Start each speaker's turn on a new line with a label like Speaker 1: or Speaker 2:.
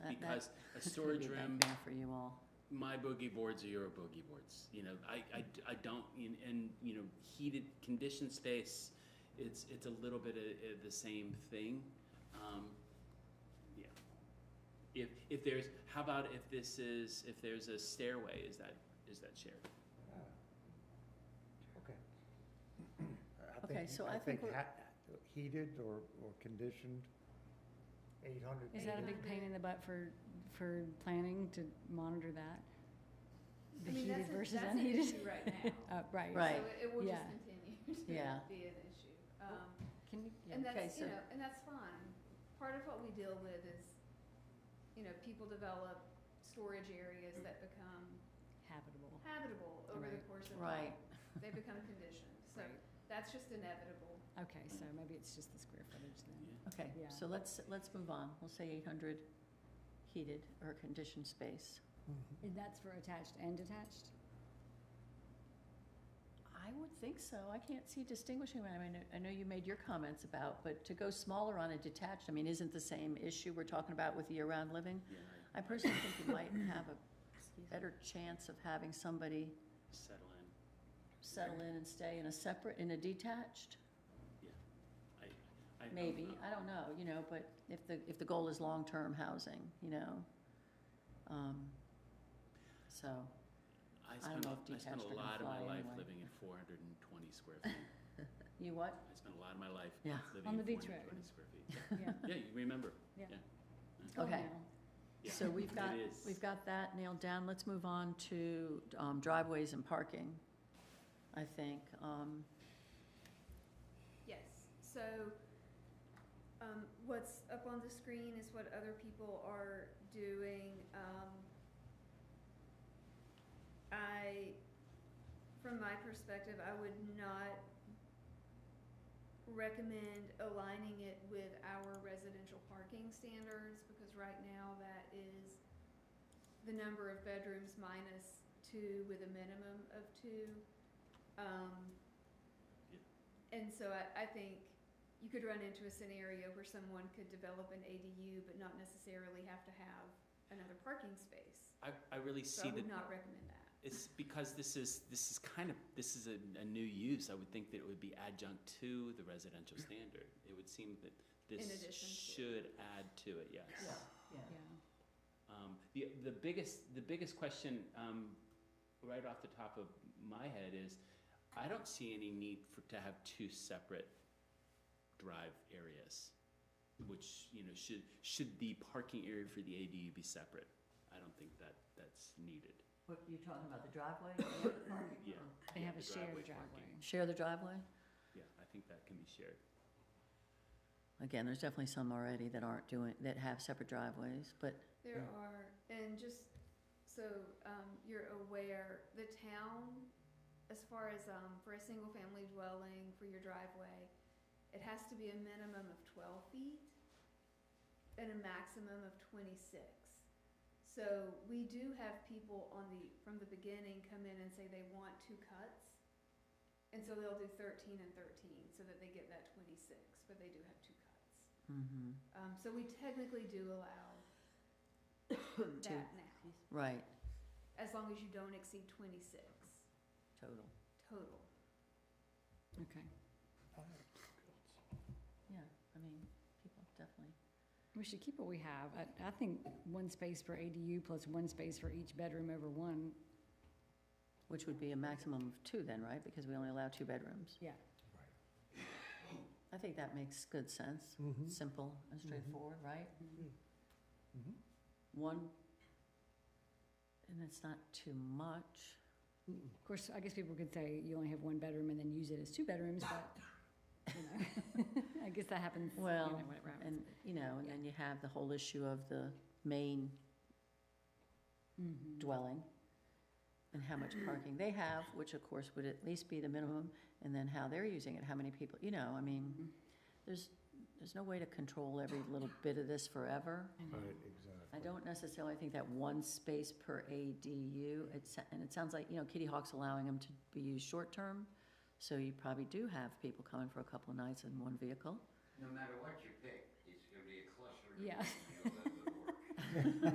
Speaker 1: because a
Speaker 2: It's gonna
Speaker 1: storage
Speaker 2: be a
Speaker 1: room,
Speaker 2: nightmare for you all.
Speaker 1: my boogie boards are your boogie boards. You know, I, I, I don't, and, and, you know, heated conditioned space, it's, it's a little bit of, of the same thing. Um, yeah. If, if there's, how about if this is, if there's a stairway, is that, is that shared?
Speaker 3: Ah. Okay. I
Speaker 2: Okay,
Speaker 3: think-
Speaker 2: so I think we're-
Speaker 3: ha- Heated or, or conditioned, eight hundred.
Speaker 4: Is that a big pain in the butt for, for planning to monitor that? The
Speaker 5: I mean,
Speaker 4: heated
Speaker 5: that's a-
Speaker 4: versus
Speaker 5: that's an
Speaker 4: unheated?
Speaker 5: issue right
Speaker 4: Uh,
Speaker 5: now.
Speaker 4: right.
Speaker 2: Right.
Speaker 5: So it- it will just
Speaker 4: yeah.
Speaker 5: continue to
Speaker 2: Yeah.
Speaker 5: be an issue. Um,
Speaker 2: Can you,
Speaker 5: And
Speaker 2: okay,
Speaker 5: that's,
Speaker 2: so,
Speaker 5: you know, and that's fine. Part of what we deal with is, you know, people develop storage areas that become
Speaker 4: Habitable.
Speaker 5: habitable over the
Speaker 4: Right.
Speaker 5: course of time.
Speaker 2: right,
Speaker 5: They become conditioned, so
Speaker 4: Right.
Speaker 5: that's just inevitable.
Speaker 4: Okay, so maybe it's just the square footage then.
Speaker 2: okay,
Speaker 4: Yeah.
Speaker 2: so let's, let's move on, we'll say eight hundred heated or conditioned space.
Speaker 3: Mm-hmm.
Speaker 4: And that's for attached and detached?
Speaker 2: I would think so. I can't see distinguishing. I mean, I know you made your comments about, but to go smaller on a detached, I mean, isn't the same issue we're talking about with year-round living?
Speaker 1: Yeah,
Speaker 2: I personally think you might have a better chance of having somebody
Speaker 1: settle in.
Speaker 2: settle in and stay in a separate, in a detached,
Speaker 1: I uh, don't
Speaker 2: maybe.
Speaker 1: know.
Speaker 2: I don't know, you know, but if the, if the goal is long-term housing, you know? Um, So,
Speaker 1: I
Speaker 2: I don't
Speaker 1: spent,
Speaker 2: know
Speaker 1: a-
Speaker 2: if
Speaker 1: I spent
Speaker 2: detached
Speaker 1: a
Speaker 2: are gonna
Speaker 1: lot of my
Speaker 2: fly
Speaker 1: life
Speaker 2: anyway.
Speaker 1: living in four hundred and twenty square feet.
Speaker 2: you what?
Speaker 1: I spent a lot of my life
Speaker 2: Yeah.
Speaker 1: living
Speaker 4: On
Speaker 1: in
Speaker 4: the beach
Speaker 1: four hundred and twenty
Speaker 4: road.
Speaker 1: square feet.
Speaker 4: Yeah.
Speaker 1: Yeah, you remember.
Speaker 4: It's gone
Speaker 2: Okay.
Speaker 4: now.
Speaker 1: Yeah.
Speaker 2: So we've got,
Speaker 1: It is.
Speaker 2: we've got that nailed down. Let's move on to um, driveways and parking, I think. Um,
Speaker 5: Yes, so, um, what's up on the screen is what other people are doing, um, I, from my perspective, I would not recommend aligning it with our residential parking standards, because right now that is the number of bedrooms minus two with a minimum of two, um, and so I, I think you could run into a scenario where someone could develop an ADU but not necessarily have to have another parking space.
Speaker 1: I, I really
Speaker 5: So
Speaker 1: see
Speaker 5: I
Speaker 1: that
Speaker 5: would not recommend that.
Speaker 1: it's because this is, this is kind of, this is a, a new use. I would think that it would be adjunct to the residential standard. It would seem that this
Speaker 5: addition to.
Speaker 1: should add to it, yes.
Speaker 4: Yeah.
Speaker 1: Um, the, the biggest, the biggest question, um, right off the top of my head is, I don't see any need for, to have two separate drive areas, which, you know, should, should the parking area for the ADU be separate? I don't think that, that's needed.
Speaker 2: What, you're talking about the driveway?
Speaker 1: Yeah.
Speaker 4: They
Speaker 1: yeah,
Speaker 4: have a
Speaker 1: the
Speaker 4: shared
Speaker 1: parking.
Speaker 4: driveway.
Speaker 2: Share the driveway?
Speaker 1: Yeah, I think that can be shared.
Speaker 2: Again, there's definitely some already that aren't doing, that have separate driveways, but,
Speaker 5: There
Speaker 2: Yeah.
Speaker 5: are, and just so um, you're aware, the town, as far as um, for a single family dwelling, for your driveway, it has to be a minimum of 12 feet and a maximum of 26. So we do have people on the, from the beginning come in and say they want two cuts. And so they'll do 13 and 13 so that they get that 26, but they do have two cuts.
Speaker 2: mhm,
Speaker 5: Um, so we technically do allow that now,
Speaker 2: right,
Speaker 5: as long as you don't exceed twenty-six
Speaker 2: total,
Speaker 5: total.
Speaker 4: Okay.
Speaker 3: Oh,
Speaker 2: yeah, I mean, people definitely,
Speaker 4: We should keep what we have. I, I think one space for ADU plus one space for each bedroom over one,
Speaker 2: which would be a maximum of two then, right? Because we only allow two bedrooms.
Speaker 4: yeah.
Speaker 2: I think that makes good sense,
Speaker 3: Mhm.
Speaker 2: simple and straightforward, right?
Speaker 4: Mm-hmm.
Speaker 3: Mhm.
Speaker 2: One, and it's not too much.
Speaker 3: Mm-mm.
Speaker 2: Mm-hmm.
Speaker 4: Of course, I guess people could say you only have one bedroom and then use it as two bedrooms, but, you know, I guess that happens, you know,
Speaker 2: Well,
Speaker 4: whatever happens.
Speaker 2: And, you know, and then you have the whole issue of the main
Speaker 4: Mhm.
Speaker 2: dwelling and how much parking they have, which of course would at least be the minimum, and then how they're using it, how many people, you know, I mean,
Speaker 4: Mhm.
Speaker 2: there's, there's no way to control every little bit of this forever.
Speaker 4: I know.
Speaker 3: Right, exactly.
Speaker 2: I don't necessarily think that one space per ADU, it's, and it sounds like, you know, Kitty Hawk's allowing them to be used short-term, so you probably do have people coming for a couple of nights in one vehicle.
Speaker 6: No matter what you pick, it's gonna be a cluster.
Speaker 4: Yeah.
Speaker 6: You'll never work.